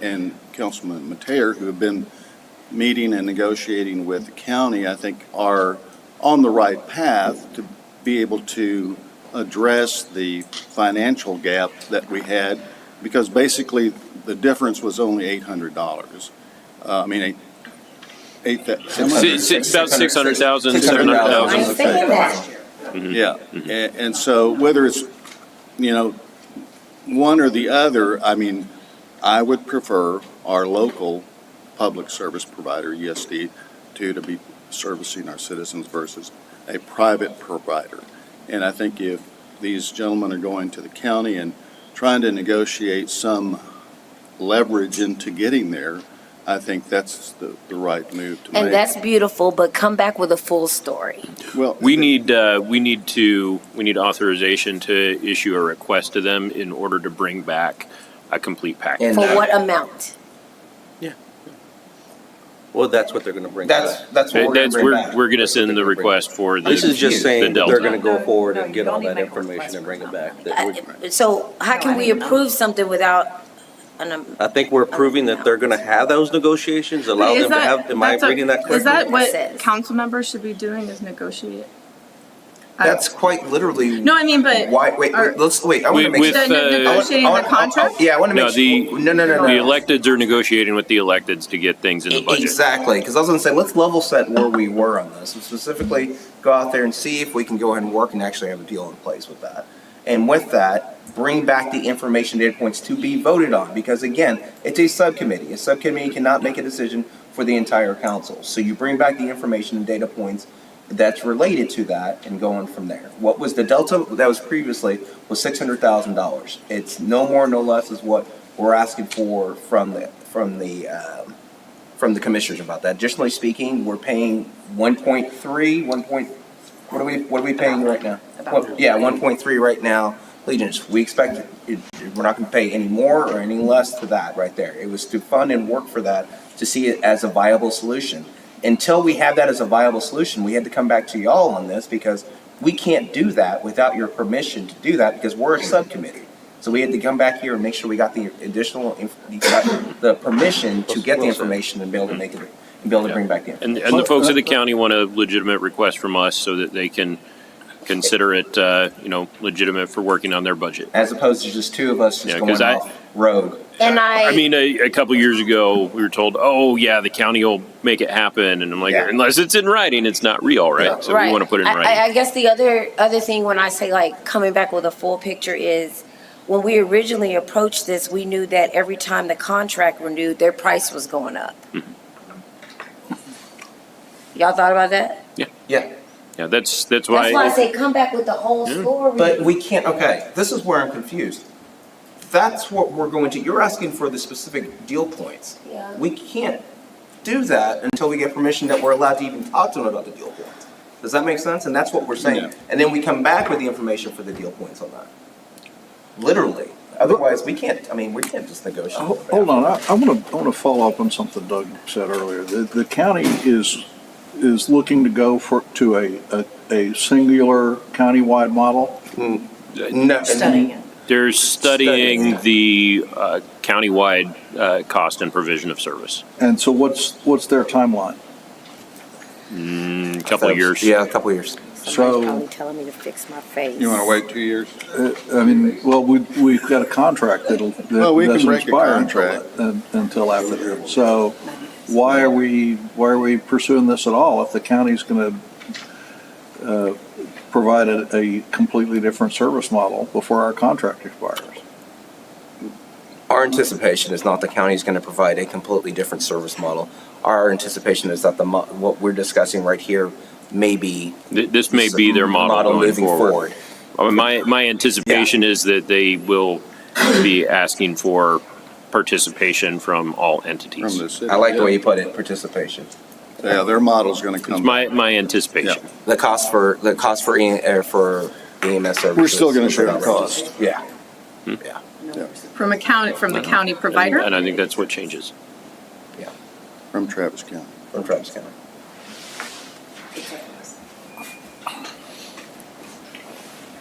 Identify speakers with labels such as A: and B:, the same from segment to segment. A: and Councilman Mateer, who have been meeting and negotiating with the county, I think are on the right path to be able to address the financial gap that we had, because basically, the difference was only eight hundred dollars. Uh, I mean, eight, eight, thou- seven
B: Si-
A: hundred.
B: si- About 600,000,
A: 600,000.
B: 700,000.
C: I'm thinking that.
B: Mm-hmm.
A: Yeah, and, and so whether it's, you know, one or the other, I mean, I would prefer our local public service provider, ESD, to, to be servicing our citizens versus a private provider. And I think if these gentlemen are going to the county and trying to negotiate some leverage into getting there, I think that's the, the right move to make.
C: And that's beautiful, but come back with a full story.
A: Well,
B: We need, uh, we need to, we need authorization to issue a request to them in order to bring back a complete package.
D: And-
C: For
D: uh,
C: what amount?
E: Well, that's what they're gonna bring
D: That's,
E: back.
D: that's what we're gonna
B: That's,
D: bring
B: we're,
D: back.
B: we're gonna send the request for the.
E: This is just
B: the
E: saying that they're
B: delta.
E: gonna go forward and
F: No,
E: get
F: you
E: all
F: don't
E: that
F: even make a
E: information
F: request
E: and bring it
F: for
E: back. That
C: I-
E: we're-
C: So how
F: No,
C: can
F: I
C: we
F: don't know.
C: approve something without an, am-
E: I think we're proving that they're gonna have those negotiations, allow
F: Is
E: them to
F: that-
E: have, am I
F: that's a-
E: reading that
F: Is that
E: correctly?
C: It says.
F: what council members should be doing is negotiate? I-
D: That's quite literally.
F: No, I mean, but.
D: Why, wait,
F: are-
D: wait, let's, wait, I wanna
B: With-
D: make
B: with, uh,
D: sure.
F: The ne-
D: I wanna- I
F: Negotiating the
D: wanna- I- I-
F: contract?
D: Yeah, I wanna
B: No,
D: make. sure-
B: the-
D: No, no, no, no. E-,
B: The
D: no.
B: electeds are negotiating with the electeds to get things in the budget.
D: Exactly, because I was gonna say, let's level set where we were on this, and specifically go out there and see if we can go ahead and work and actually have a deal in place with that. And with that, bring back the information data points to be voted on, because again, it's a subcommittee. A subcommittee cannot make a decision for the entire council. So you bring back the information and data points that's related to that and going from there. What was the delta that was previously was six hundred thousand dollars. It's no more, no less is what we're asking for from the, from the, um, from the commissioners about that. Additionally speaking, we're paying one point three, one point, what are we, what are we paying right now?
C: About-
D: Well, Yeah, one point three right now, Legion's. We expect, it- it- we're not gonna pay any more or any less to that right there. It was to fund and work for that, to see it as a viable solution. Until we have that as a viable solution, we had to come back to y'all on this because we can't do that without your permission to do that because we're a subcommittee. So we had to come back here and make sure we got the additional, inf- we got the permission to get the information and be able to make it, and be able to bring back the
B: Mm-hmm.
D: information.
B: And, and the
D: uh,
B: folks at the county want a legitimate request from us so that they can consider it, uh, you know, legitimate for working on their budget.
D: As opposed to just two of us just
B: Yeah,
D: going
B: 'cause I-
D: off rogue.
C: and
B: I mean, a, a couple years ago, we were told, "Oh, yeah, the county will make it happen," and I'm like,
D: Yeah.
B: "Unless it's in writing, it's not real, right?" So we want to put it in
C: I-
B: writing.
C: I, I guess the other, other thing when I say like coming back with a full picture is when we originally approached this, we knew that every time the contract renewed, their price was going up.
B: Mm-hmm.
C: Y'all thought about that?
D: Yeah.
B: yeah, that's that's why.
C: That's why I say come back with the whole
B: Yeah.
C: story.
D: But we can't, okay, this is where I'm confused. That's what we're going to, you're asking for the specific deal points.
C: Yeah.
D: We can't do that until we get permission that we're allowed to even talk to them about the deal points. Does that make sense? And that's what we're saying. And then we come back with the information for the deal points on that. Literally. Otherwise, we can't, I mean, we can't just negotiate.
G: Ho- Hold on, I, I want to, I want to follow up on something Doug said earlier. The, the county is, is looking to go for, to a, a, a singular countywide model.
D: No.
F: Studying it.
B: They're studying
D: Studying.
B: the uh, countywide uh, cost and provision of service.
G: And so what's, what's their timeline?
B: In a couple of years.
D: Yeah, a couple of years.
C: Somebody's
G: so-
C: probably telling me to fix my face.
A: You want to wait two years?
G: Uh, I mean, well, we, we've got a contract that'll, that
A: Well, we can
G: doesn't
A: break a
G: expire until,
A: contract.
G: that- un- until after that. So why are we, why are we pursuing this at all if the county's going to, uh, provide a, a completely different service model before our contract expires?
D: Our anticipation is not the county is going to provide a completely different service model. Our anticipation is that the, mo- what we're discussing right here may be.
B: Th- this may be their model, going
D: moving
B: forward. I mean, my my anticipation is that they will be asking for participation from all entities.
A: From the city.
D: I like the way you put it, participation.
A: Yeah, their model's gonna come.
B: it's my my anticipation.
A: Yeah.
D: The cost for, the cost for E- uh, for EMS services.
A: We're still gonna share the cost.
D: Yeah.
B: Hmm.
D: Yeah.
F: From a county, from
D: Uh-huh.
F: the county
B: And,
F: provider?
B: and I think that's what changes.
D: Yeah.
A: From Travis County.
D: From Travis County.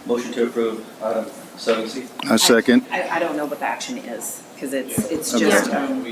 H: Motion to approve item seven C.
A: I second.
I: I, I don't know what the action is, because it's, it's
A: Okay.
I: just, um,